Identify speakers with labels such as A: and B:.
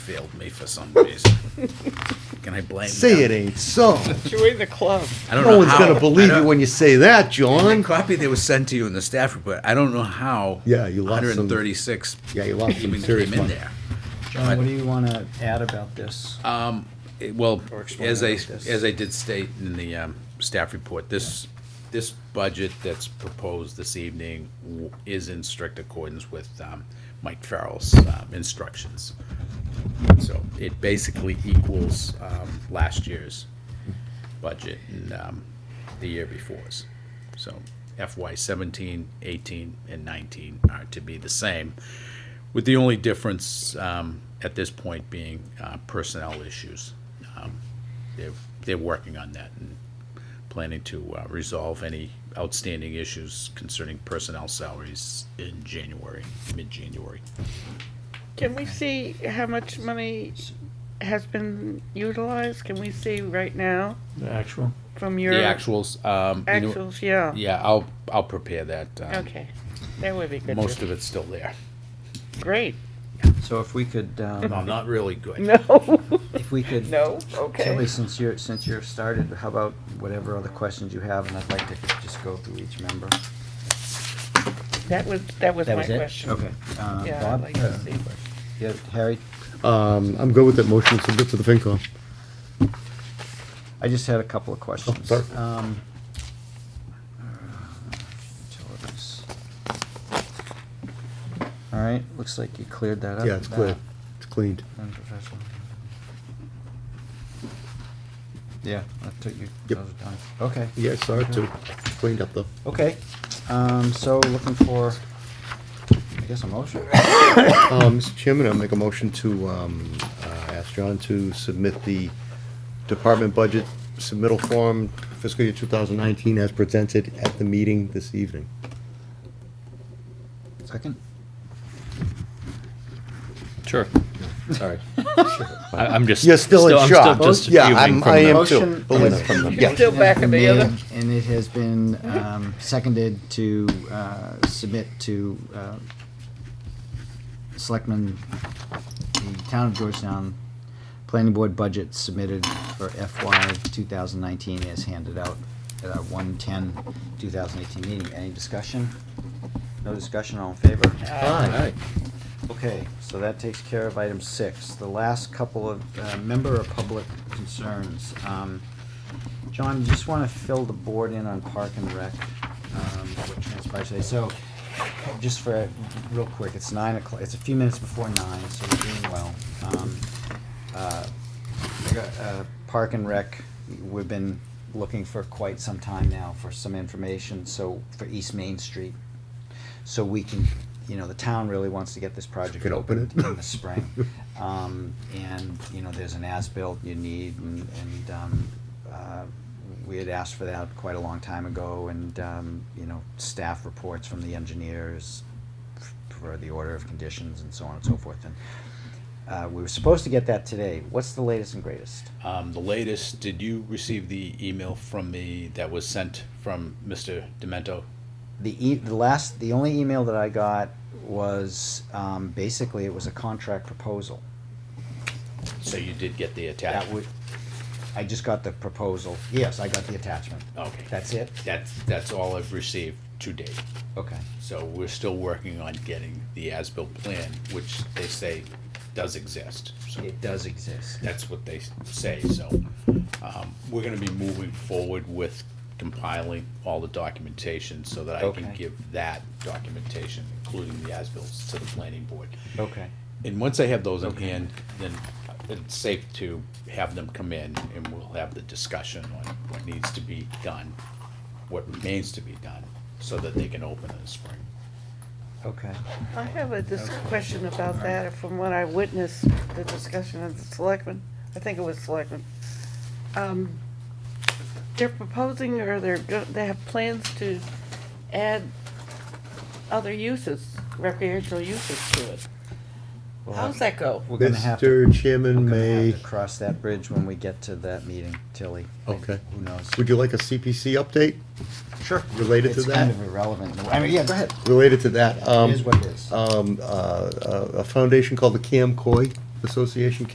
A: failed me for some reason. Can I blame them?
B: Say it ain't so.
C: Join the club.
A: I don't know
B: No one's
A: how.
B: gonna believe
A: I
B: you
A: don't-
B: when you say that,
A: The
B: John.
A: copy that was sent to you in the staff report, I don't know how.
B: Yeah, you lost some-
A: 136
B: Yeah, you lost some
A: even
B: serious
A: came in
B: money.
A: there.
D: John, what do you want to add about this?
A: It- Well,
D: Or explain
A: as I,
D: it like this.
A: as I did state in the um, staff report, this, this budget that's proposed this evening w- is in strict accordance with um, Mike Farrell's um, instructions. So it basically equals um, last year's budget and um, the year before's. So FY 17, 18, and 19 are to be the same, with the only difference um, at this point being uh, personnel issues. Um, They're, they're working on that and planning to uh, resolve any outstanding issues concerning personnel salaries in January, mid-January.
C: Can we see how much money has been utilized? Can we see right now
D: The actual?
C: from
A: The
C: your
A: actuals, um, you know-
C: actuals? Yeah.
A: yeah, I'll, I'll prepare that. um,
C: Okay, that would be good. too.
A: Most of it's still there.
C: Great.
D: So if we could,
A: No,
D: um,
A: I'm not really good.
C: No.
D: if we could,
C: no.
D: Kelly,
C: Okay.
D: since you're, since you're started, how about whatever other questions you have, and I'd like to just go through each member.
C: That was that was
D: That
C: my
D: was it?
C: question.
D: Okay. Uh,
C: Yeah. I'd
D: Bob,
C: like to see what-
D: you have- Harry,
B: Um, I'm good with that motion submit to the FinCom.
D: I just had a couple of questions.
B: sorry.
D: Um, uh, utilities. All right, looks like you cleared that up.
B: Yeah, it's
D: That-
B: clear. It's cleaned.
D: And professional. Yeah, I took you,
B: Yep.
D: those are done. Okay.
B: Yeah, sorry too. Cleaned up though.
D: Okay, um, so looking for, I guess, a motion.
B: Um, Mr. Chairman, I'll make a motion to, um, uh, ask John to submit the department budget submittal form fiscal year two thousand nineteen as presented at the meeting this evening.
D: Second?
E: Sure. Sorry. I, I'm just.
B: You're still in shock.
E: I'm still just
B: Yeah,
E: fuming
B: I'm-
E: from
B: I
E: the-
B: am too.
D: Motion
B: Believe
D: has-
B: it or not.
C: You're still
D: has
C: back
D: been
C: in the other.
D: made, And it has been, um, seconded to, uh, submit to, uh, Selectmen, the Town of Georgetown Planning Board budget submitted for FY two thousand nineteen is handed out at our 110 2018 meeting. Any discussion? No discussion, all in favor?
B: Aye.
D: Okay, so that takes care of item six. The last couple of uh, member of public concerns. Um, John, you just want to fill the board in on Park and Rec, um, what transpired today. So, just for, real quick, it's nine o'clock, it's a few minutes before nine, so we're doing well. Um, uh, I got, uh, Park and Rec, we've been looking for quite some time now for some information, so, for East Main Street. So we can, you know, the town really wants to get this project
B: Can open
D: opened
B: it.
D: in the spring. Um, and, you know, there's an as-built you need and, and, um, uh, we had asked for that quite a long time ago and, um, you know, staff reports from the engineers for the order of conditions and so on and so forth. And, uh, we were supposed to get that today. What's the latest and greatest?
A: Um, the latest, did you receive the email from me that was sent from Mr. Demento?
D: The e- the last, the only email that I got was, um, basically it was a contract proposal.
A: So you did get the
D: That
A: attachment?
D: would, I just got the proposal. Yes, I got the attachment.
A: Okay.
D: That's it?
A: That's, that's all I've received to date.
D: Okay.
A: So we're still working on getting the as-built plan, which they say does exist. So
D: It does exist.
A: that's what they say, so, um, we're gonna be moving forward with compiling all the documentation so that I can
D: Okay.
A: give that documentation, including the as-bills, to the planning board.
D: Okay.
A: And once I have those in hand, then it's safe to have them come in and we'll have the discussion on what needs to be done, what remains to be done, so that they can open in the spring.
D: Okay.
C: I have a dis- question about that from when I witnessed the discussion of the selectmen. I think it was selectmen. Um, They're proposing or they're, go- they have plans to add other uses, recreational uses to it.
D: Well,
C: How's that go?
D: We're gonna have to,
B: Mr.
D: we're
B: Chairman
D: gonna have
B: may,
D: to cross that bridge when we get to that meeting, Tilly.
B: Okay.
D: Who knows?
B: would you like a CPC update
D: Sure.
B: related to
D: It's kind
B: that?
D: of irrelevant. I mean, yeah, go ahead.
B: Related to that,
D: It
B: um, uh,
D: is what it is.
B: um, uh, a a foundation called the Cam Coy Association